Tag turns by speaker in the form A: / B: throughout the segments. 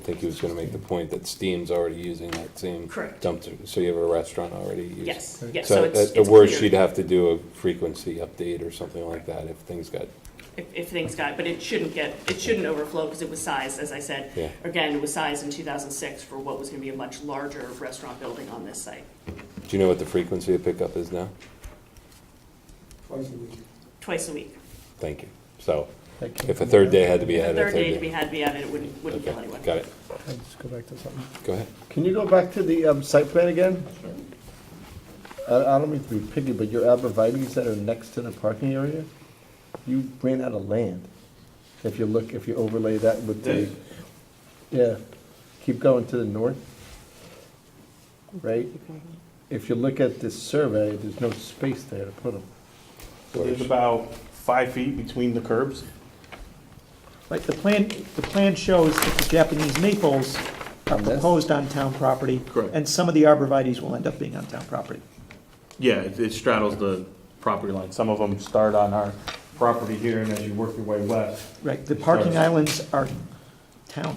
A: I think he was gonna make the point that Steam's already using that same
B: Correct.
A: dumpster, so you have a restaurant already using.
B: Yes,
C: Okay.
B: yes, so
A: So
B: it's,
A: at the
B: it's
A: worst,
B: clear
A: she'd have to do a frequency update or something like that if things got,
B: If, if things got, but it shouldn't get, it shouldn't overflow because it was sized, as I said.
A: yeah.
B: Again, it was sized in two thousand six for what was gonna be a much larger restaurant building on this site,
A: Do you know what the frequency of pickup is now?
C: Twice a week.
B: twice a week.
A: Thank you. So
C: That came
A: if a
C: from-
A: third day had to be
B: The
A: added, a
B: third day to be had, be added, it wouldn't, wouldn't kill
A: Okay,
B: anyone.
A: Got it.
C: I'll just go back to something.
A: Go ahead.
C: Can you go back to the um, site plan again? I I don't mean to be picky, but your arborvitae's that are next to the parking area, you ran out of land. If you look, if you overlay that with the, yeah, keep going to the north, right? If you look at this survey, there's no space there to put them.
D: So There's about five feet between the curbs.
E: Like, the plan, the plan shows that the Japanese maples are
C: On this?
E: proposed on town property.
D: Correct.
E: And some of the arborvitae's will end up being on town property.
D: Yeah, it it straddles the property line. Some of them start on our property here, and as you work your way west.
E: Right, the
D: Sorry.
E: parking islands are town,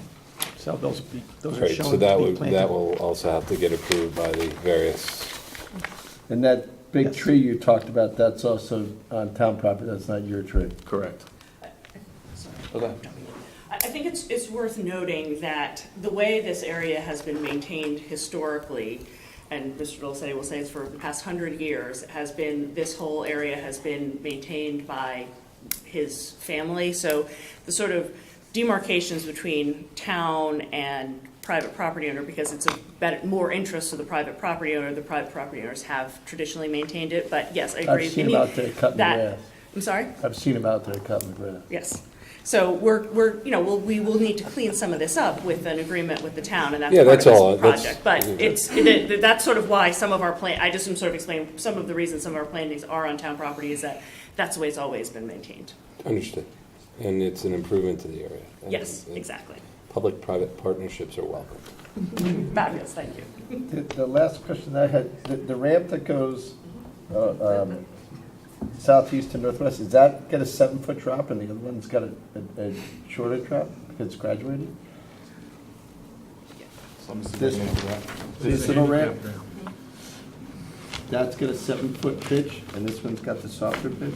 E: so those, be- those are
A: Right,
E: shown
A: so
E: to
A: that
E: be
A: would, that
E: planted.
A: will also have to get approved by the various,
C: And that big
E: Yes.
C: tree you talked about, that's also on town property, that's not your tree.
D: Correct.
B: Sorry.
D: Okay.
B: I, I think it's, it's worth noting that the way this area has been maintained historically, and Mr. Dulcetti will say it's for the past hundred years, has been, this whole area has been maintained by his family. So the sort of demarcations between town and private property owner, because it's a better, more interest to the private property owner, the private property owners have traditionally maintained it, but yes, I agree.
C: I've seen
B: We need-
C: them out there cutting
B: that-
C: grass.
B: I'm sorry?
C: I've seen them out there cutting the grass.
B: Yes. So we're, we're, you know, we'll, we will need to clean some of this up with an agreement with the town, and that's
A: Yeah,
B: part
A: that's all,
B: of this
A: that's-
B: project. But it's, it- it- that's sort of why some of our plan, I just am sort of explaining, some of the reasons some of our plantings are on town property is that that's the way it's always been maintained.
A: understood. And it's an improvement to the area. And-
B: Yes,
A: and
B: exactly.
A: Public-private partnerships are welcome.
B: Fabulous, thank you.
C: The the last question I had, the- the ramp that goes uh, um, southeast to northwest, is that got a seven-foot drop and the other one's got a- a a shorter drop because it's graduated? This- This little ramp? That's got a seven-foot pitch and this one's got the softer pitch?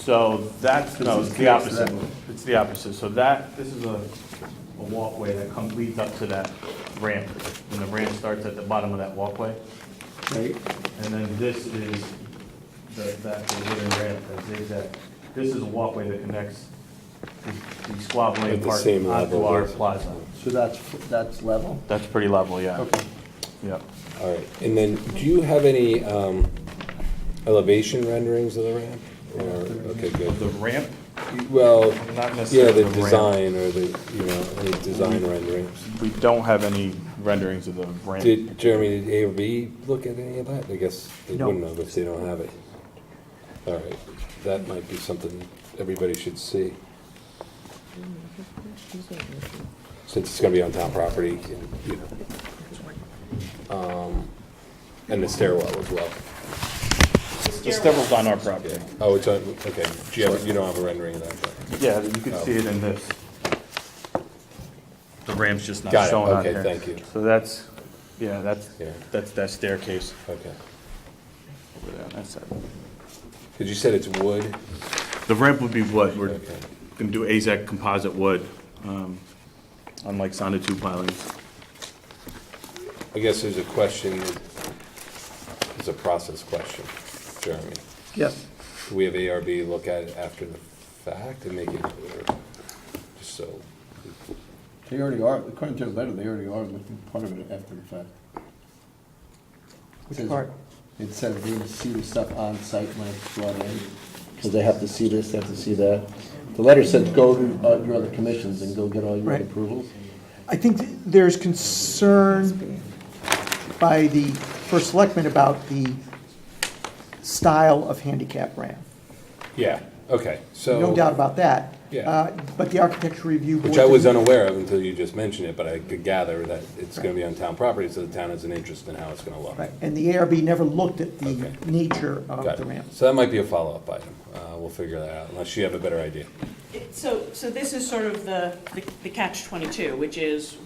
D: So that's, no, it's the
C: This is
D: opposite.
C: curious,
D: It's the opposite. So that, this is a, a walkway that comes, leads up to that ramp. And the ramp starts at the bottom of that walkway.
C: Right?
D: And then this is the, that the wooden ramp that zigzag. This is a walkway that connects the- the Squab
A: At
D: Lane
A: the
D: Park
A: same
D: onto
A: level
D: our
A: as-
D: plaza.
C: So that's, f- that's level?
D: That's pretty level, yeah,
C: Okay.
D: yeah.
A: All right, and then, do you have any um, elevation renderings of the ramp? Or, okay,
D: The
A: good.
D: ramp,
A: Well,
D: not
A: yeah,
D: necessarily
A: the
D: the ramp.
A: design or the, you know, any design renderings.
D: We don't have any renderings of the ramp.
A: Did Jeremy, did A or B look at any of that? I guess they
E: No.
A: wouldn't have if they don't have it. All right, that might be something everybody should see. Since it's gonna be on town property, and, you know. Um, And the stairwell as well.
D: The stairwell's on our property.
A: Oh, it's on, okay, do you have, you don't have a rendering of that?
D: Yeah, you can see it in this. The ramp's just not
A: Got it,
D: shown on
A: okay,
D: here.
A: thank you.
D: So that's, yeah, that's,
A: Yeah.
D: that's that staircase
A: Okay.
D: over there on that side.
A: Because you said it's wood?
D: The ramp would be what, we're
A: Okay.
D: gonna do AZAC composite wood, um, unlike sonotube pilings.
A: I guess there's a question, it's a process question, Jeremy.
E: Yes,
A: Do we have ARB look at it after the fact and make it, or, just so,
C: They already are, according to the letter, they already are looking at part of it after the fact.
E: which
C: Says-
E: part?
C: It said we need to see the stuff on site when it's brought in, because they have to see this, they have to see that. The letter said, go to uh, your other commissions and go get all your
E: Right.
C: approvals.
E: I think th- there's concern by the first selectman about the style of handicap ramp.
A: yeah, okay, so.
E: No doubt about that.
A: Yeah.
E: Uh, But the architecture review board.
A: Which I was
E: didn't-
A: unaware of until you just mentioned it, but I could gather that it's gonna be on town property, so the town has an interest in how it's gonna look.
E: Right, and the ARB never looked at the
A: Okay.
E: nature
A: Got
E: of the
A: it.
E: ramp.
A: So that might be a follow-up item, uh, we'll figure that out, unless you have a better idea.
B: So, so this is sort of the, the- the catch twenty-two, which is